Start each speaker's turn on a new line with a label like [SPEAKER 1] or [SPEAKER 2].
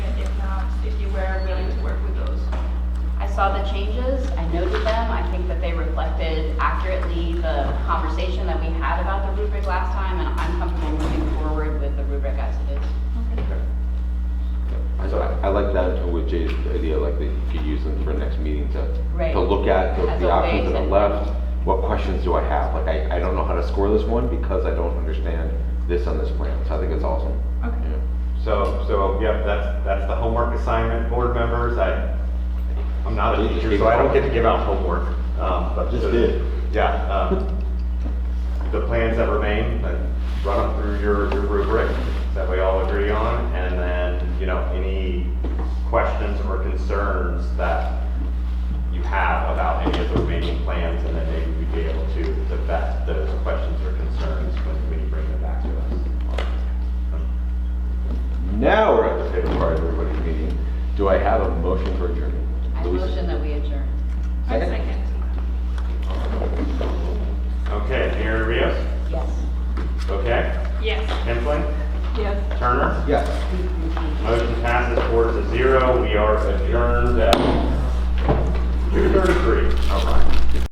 [SPEAKER 1] saw the changes, I noted them, I think that they reflected accurately the conversation that we had about the rubric last time, and I'm comfortable moving forward with the rubric as it is.
[SPEAKER 2] So I, I like that with Jay's idea, like that you could use them for next meeting to,
[SPEAKER 1] Right.
[SPEAKER 2] to look at the-
[SPEAKER 1] As
[SPEAKER 2] the
[SPEAKER 1] a
[SPEAKER 2] options
[SPEAKER 1] way
[SPEAKER 2] that are
[SPEAKER 1] to-
[SPEAKER 2] left. What questions do I have? Like, I, I don't know how to score this one because I don't understand this on this plan. So I think it's awesome.
[SPEAKER 3] Okay.
[SPEAKER 2] Yeah.
[SPEAKER 4] So, so, yep, that's, that's the homework assignment, board members, I, I'm not a teacher, so I don't get to give out homework, um, but.
[SPEAKER 2] Just did.
[SPEAKER 4] Yeah, um, the plans that remain, uh, run them through your, your rubric that we all agree on, and then, you know, any questions or concerns that you have about any of the remaining plans, and then maybe we'd be able to, to vet those questions or concerns when, when you bring them back to us.
[SPEAKER 2] Now we're at the favorite part of everybody's meeting. Do I have a motion for adjournment?
[SPEAKER 1] I
[SPEAKER 2] Louise?
[SPEAKER 1] motion that we adjourn.
[SPEAKER 3] I second.
[SPEAKER 4] Okay, Aaron Rios?
[SPEAKER 1] Yes.
[SPEAKER 4] Okay,
[SPEAKER 3] Yes.
[SPEAKER 4] Hensley,
[SPEAKER 3] Yes.
[SPEAKER 4] Turner,
[SPEAKER 2] Yes.
[SPEAKER 4] motion passes four to zero, we are adjourned at two thirty-three. All right.